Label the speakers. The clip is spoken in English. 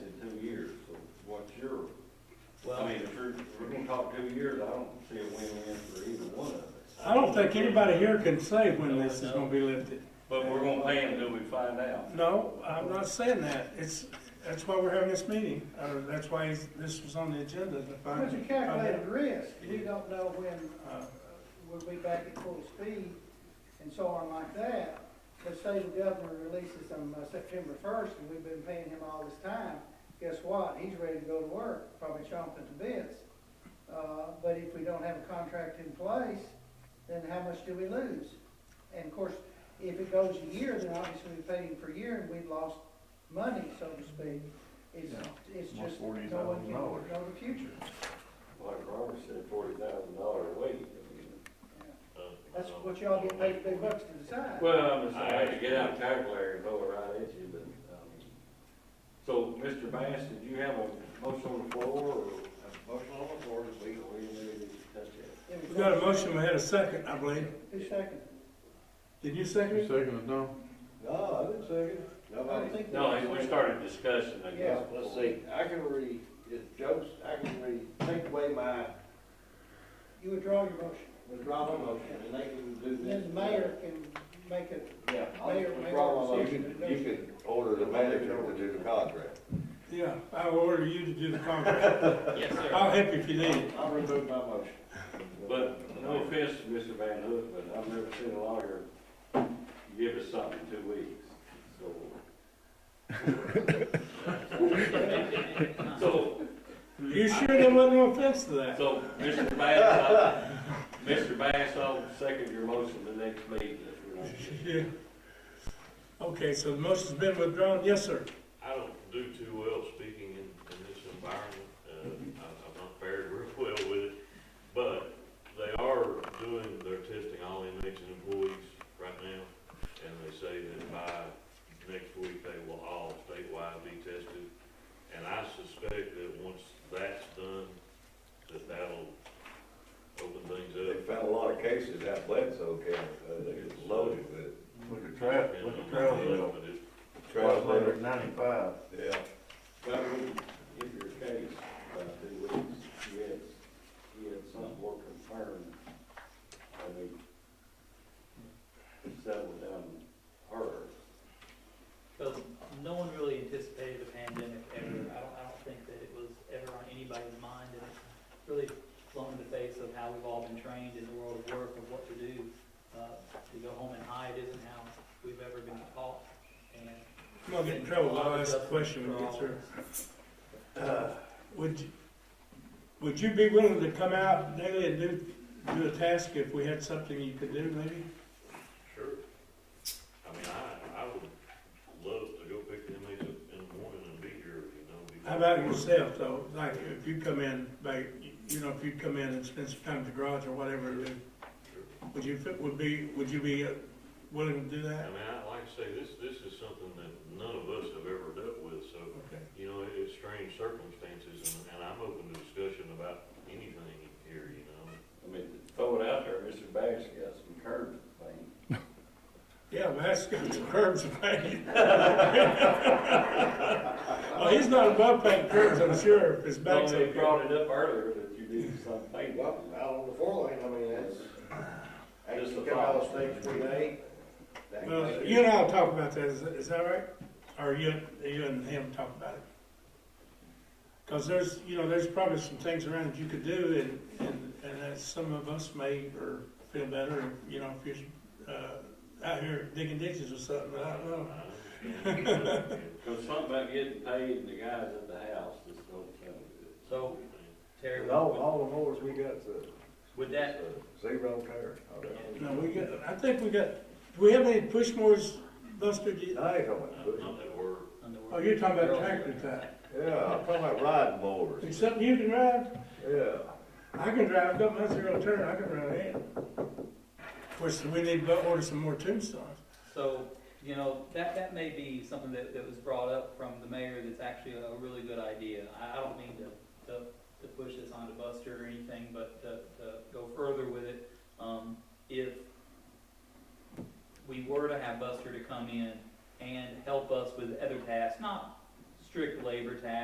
Speaker 1: talk two years, I don't see a win-win for either one of us.
Speaker 2: I don't think anybody here can say when this is gonna be lifted.
Speaker 1: But we're gonna pay until we find out.
Speaker 2: No, I'm not saying that. It's, that's why we're having this meeting. Uh, that's why he's- this was on the agenda to find.
Speaker 3: But you calculate the risk, we don't know when, uh, we'll be back at full speed and so on like that. But say the governor releases them uh, September first and we've been paying him all this time, guess what? He's ready to go to work, probably chomping at the bits. Uh, but if we don't have a contract in place, then how much do we lose? And of course, if it goes a year, then obviously we paid him for a year and we've lost money, so to speak. It's, it's
Speaker 4: Almost
Speaker 3: just,
Speaker 4: $40,000.
Speaker 3: no one can know the future.
Speaker 1: Like Robert said, forty thousand dollar a week. I mean,
Speaker 3: That's what y'all get paid big bucks to decide.
Speaker 1: Well, I'm just, I had to get out a calculator and throw it right at you, but, um, so, Mr. Bass, did you have a motion on the floor or? Motion on the floor, we, we need to touch it.
Speaker 3: It was-
Speaker 2: We got a motion, we had a second, I believe.
Speaker 3: Who seconded?
Speaker 2: Did you second
Speaker 4: You
Speaker 2: it?
Speaker 4: second it, Don?
Speaker 1: No, I didn't say it.
Speaker 3: Nobody-
Speaker 5: No, we started discussing, I guess.
Speaker 3: Yeah.
Speaker 6: Let's see, I can really, if Joe's, I can really take away my
Speaker 3: You withdraw your motion.
Speaker 6: withdrawal motion, and they can do this.
Speaker 3: Then the mayor can make it,
Speaker 6: Yeah, I'll
Speaker 3: mayor-
Speaker 6: withdraw my
Speaker 3: mayor-
Speaker 7: You
Speaker 6: motion.
Speaker 7: could, you could order the manager to do the contract.
Speaker 2: Yeah, I order you to do the contract.
Speaker 5: Yes,
Speaker 2: I'll help you if you need it.
Speaker 6: I'll remove my motion.
Speaker 1: But, no offense to Mr. Van Hook, but I've never seen a lawyer give us something in two weeks, so. So,
Speaker 2: You sure there wasn't no offense to that?
Speaker 1: So, Mr. Bass, I- Mr. Bass, I'll second your motion the next meeting if you're not.
Speaker 2: Yeah. Okay, so the motion's been withdrawn. Yes, sir.
Speaker 5: I don't do too well speaking in, in this environment, uh, I, I'm not fared real well with it, but they are doing their testing, all inmates and employees right now, and they say that by next week, they will all statewide be tested, and I suspect that once that's done, that that'll open things
Speaker 7: They
Speaker 5: up.
Speaker 7: found a lot of cases out Bledsoe County, uh, they was loaded with
Speaker 4: Look at traffic, look at traffic.
Speaker 5: But it's-
Speaker 7: trash.
Speaker 4: Twelve hundred ninety-five.
Speaker 7: Yeah,
Speaker 1: That would, if your case, uh, two weeks, you had, you had something more confirmed, I mean, settle down harder.
Speaker 8: Because no one really anticipated a pandemic ever. I don't, I don't think that it was ever on anybody's mind, and it's really flown in the face of how we've all been trained in the world of work of what to do. Uh, To go home and hide isn't how we've ever been taught, and
Speaker 2: I'm gonna get in trouble. I'll ask the question when we get through. Uh, Would, you- would you be willing to come out daily and do, do a task if we had something you could do maybe?
Speaker 5: Sure. I mean, I, I would love to go pick the inmates up in the morning and be here, you know. because-
Speaker 2: How about yourself though? Like if you come in, like, you know, if you come in and spend some time at the garage or whatever, then would you, fit- would be, would you be uh, willing to do
Speaker 5: I
Speaker 2: that?
Speaker 5: mean, I, like I say, this, this is something that none of us have ever dealt with, so,
Speaker 2: Okay.
Speaker 5: you know, it- it's strange circumstances, and, and I'm open to discussion about anything here, you know.
Speaker 1: I mean, throw it out there, Mr. Bass got some curb thing.
Speaker 2: Yeah, well, that's got some curbs painted. Well, he's not above painting curbs, I'm sure, if his
Speaker 1: Well,
Speaker 2: back's
Speaker 1: they
Speaker 2: okay.
Speaker 1: brought it up earlier that you did something.
Speaker 6: Well, out on the four lane, I mean, that's,
Speaker 1: Just
Speaker 6: actually
Speaker 1: a
Speaker 6: come out of
Speaker 1: thought.
Speaker 6: state twenty-eight. that
Speaker 2: Well,
Speaker 6: goes-
Speaker 2: Uh, you and I'll talk about that, is, is that right? Or you, you and him talk about it? Cause there's, you know, there's probably some things around that you could do and, and, and that some of us may or feel better, you know, if you're, uh, out here digging ditches or something, I don't know.
Speaker 1: Cause something about getting paid and the guys at the house just don't sound good.
Speaker 8: so, Terry,
Speaker 4: And all,
Speaker 8: would-
Speaker 4: all the mowers we got's uh,
Speaker 8: would that,
Speaker 4: zero tire.
Speaker 2: No, we got, I think we got, do we have any push mowers, Buster? Do you-
Speaker 4: I ain't talking
Speaker 5: Not
Speaker 4: about
Speaker 5: not
Speaker 4: pushing.
Speaker 5: that we're,
Speaker 2: Oh, you're talking about tractor type,
Speaker 4: Yeah, I'm talking about riding mowers.
Speaker 2: Is something you can drive?
Speaker 4: Yeah.
Speaker 2: I can drive, I've got my zero turn, I can drive it. Of course, we need to order some more tombstones.
Speaker 8: So, you know, that, that may be something that, that was brought up from the mayor that's actually a really good idea. I, I don't mean to, to, to push this onto Buster or anything, but to, to go further with it. Um, if we were to have Buster to come in and help us with other tasks, not strict labor tasks.